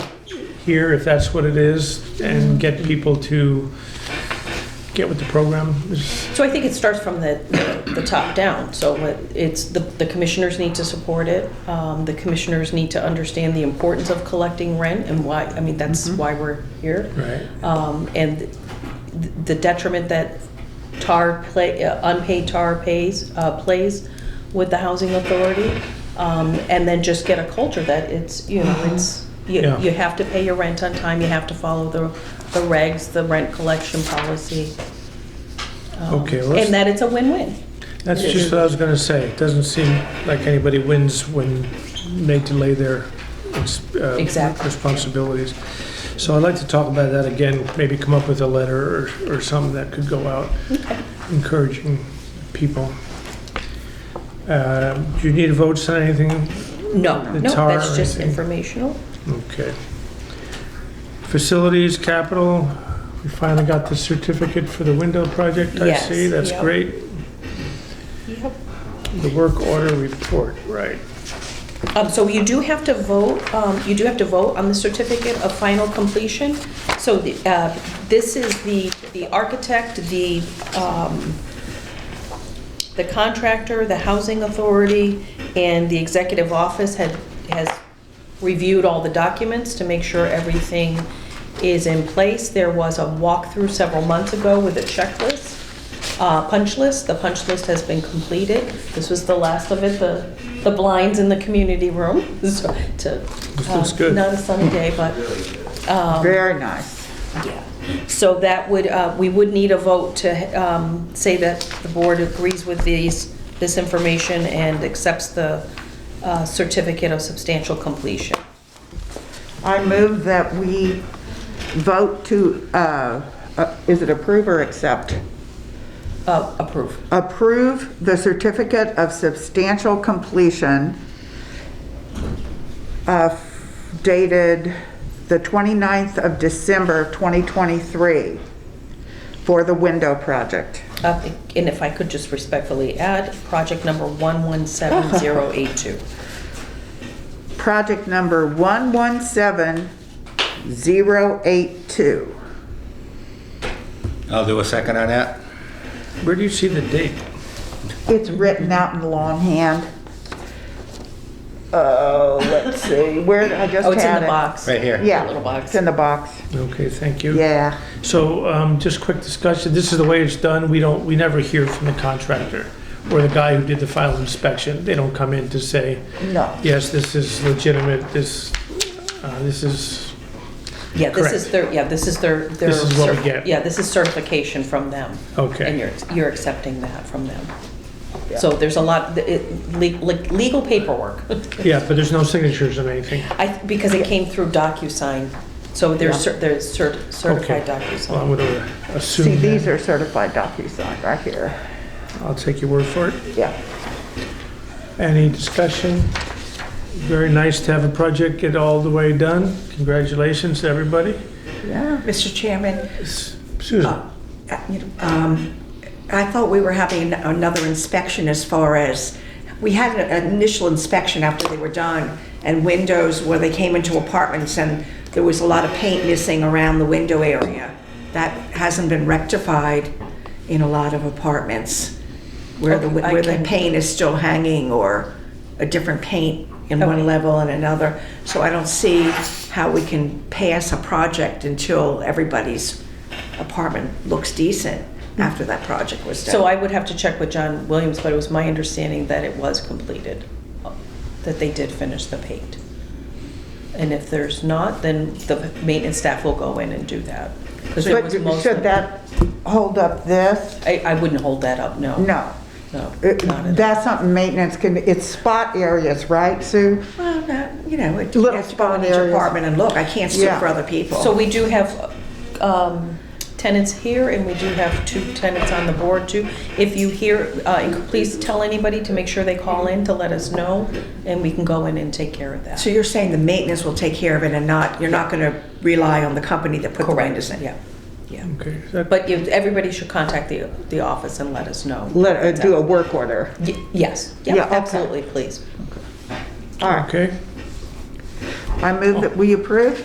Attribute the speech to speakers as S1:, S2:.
S1: here, if that's what it is, and get people to get with the program. Is-
S2: So I think it starts from the, the top down. So what- it's, the, the commissioners need to support it. Um, the commissioners need to understand the importance of collecting rent and why, I mean, that's
S1: Mhm.
S2: why we're here.
S1: Right.
S2: Um, and th- the detriment that tar play, uh, unpaid tar pays, uh, plays with the housing authority. Um, and then just get a culture that it's, you know, it's, you,
S1: Uh-huh. Yeah.
S2: you have to pay your rent on time, you have to follow the, the regs, the rent collection policy. Um,
S1: Okay, let's-
S2: And that it's a win-win.
S1: That's just what I was gonna say. It doesn't seem like anybody wins when they delay their uh,
S2: Exactly.
S1: responsibilities. So I'd like to talk about that again, maybe come up with a letter or, or something that could go out encouraging people. Uh, Do you need votes on anything?
S2: No,
S1: The
S2: no,
S1: tar
S2: that's
S1: or
S2: just
S1: anything.
S2: informational.
S1: Okay. Facilities, capital, we finally got the certificate for the window project, I
S2: Yes,
S1: see. That's
S2: yep.
S1: great.
S2: Yep.
S1: The work order report, right.
S2: Um, so you do have to vote, um, you do have to vote on the certificate of final completion. So the, uh, this is the, the architect, the, um, the contractor, the housing authority, and the executive office had, has reviewed all the documents to make sure everything is in place. There was a walkthrough several months ago with a checklist, uh, punch list. The punch list has been completed. This was the last of it, the, the blinds in the community room, so to.
S1: This looks
S2: uh,
S1: good.
S2: Not a sunny day, but, um,
S3: Very nice.
S2: yeah. So that would, uh, we would need a vote to um, say that the board agrees with these, this information and accepts the uh, certificate of substantial completion.
S3: I move that we vote to, uh, uh, is it approve or accept?
S2: Uh, Approve.
S3: Approve the certificate of substantial completion uh, dated the 29th of December 2023 for the window project.
S2: Uh, And if I could just respectfully add, project number 117082.
S3: Project number 117082.
S4: I'll do a second on that.
S1: Where do you see the date?
S3: It's written out in longhand. Oh, let's see, where, I just had it.
S2: Oh, it's in the box.
S4: Right here.
S3: Yeah.
S2: Little box.
S3: It's in the box,
S1: Okay, thank you.
S3: yeah.
S1: So, um, just quick discussion, this is the way it's done, we don't, we never hear from the contractor or the guy who did the final inspection, they don't come in to say,
S3: No.
S1: yes, this is legitimate, this, uh, this is,
S2: Yeah, this is
S1: Correct.
S2: their, yeah, this is their. their
S1: This is what we
S2: cer-
S1: get.
S2: Yeah, this is certification from them. And
S1: okay.
S2: you're, you're accepting that from them. So there's a lot, it- le- le- legal paperwork.
S1: Yeah, but there's no signatures on anything.
S2: I, because it came through DocuSign, so
S3: Yeah.
S2: there's, cer- there's cert- certified
S1: Okay. Well, I'm
S2: DocuSign.
S1: gonna
S3: See,
S1: assume
S3: these
S1: that,
S3: are certified DocuSign right here,
S1: I'll take your word for it.
S3: yeah.
S1: Any discussion? Very nice to have a project get all the way done, congratulations to everybody.
S3: Yeah.
S5: Mr. Chairman,
S1: S- Susan,
S5: uh, you know, um, I thought we were having an- another inspection as far as, we had an initial inspection after they were done, and windows where they came into apartments, and there was a lot of paint missing around the window area. That hasn't been rectified in a lot of apartments, where the,
S2: Okay, I
S5: where the
S2: can-
S5: paint is still hanging, or a different paint in
S2: Okay.
S5: one level and another. So I don't see how we can pass a project until everybody's apartment looks decent after that project was done.
S2: So I would have to check with John Williams, but it was my understanding that it was completed, that they did finish the paint. And if there's not, then the maintenance staff will go in and do that. 'Cause it
S3: But
S2: was mostly-
S3: should that hold up this?
S2: I, I wouldn't hold that up, no.
S3: No. Uh,
S2: No.
S3: It-
S2: not at all.
S3: That's something maintenance can, it's spot areas, right, Sue?
S5: Well, not, you know, it
S3: Little
S5: has to go in each
S3: spot areas.
S5: apartment and look, I can't sue
S3: Yeah.
S5: for other people.
S2: So we do have um, tenants here, and we do have two tenants on the board, too. If you hear, uh, and please tell anybody to make sure they call in to let us know, and we can go in and take care of that.
S5: So you're saying the maintenance will take care of it and not, you're not gonna rely on the company that put the windows in?
S2: Yeah, yeah.
S1: okay, is that-
S2: But you- everybody should contact the, the office and let us know.
S3: Let, uh, do a work order.
S2: Y- Yes,
S3: Yeah,
S2: yeah,
S3: okay.
S2: absolutely, please.
S3: All right,
S1: okay?
S3: I move that we approve?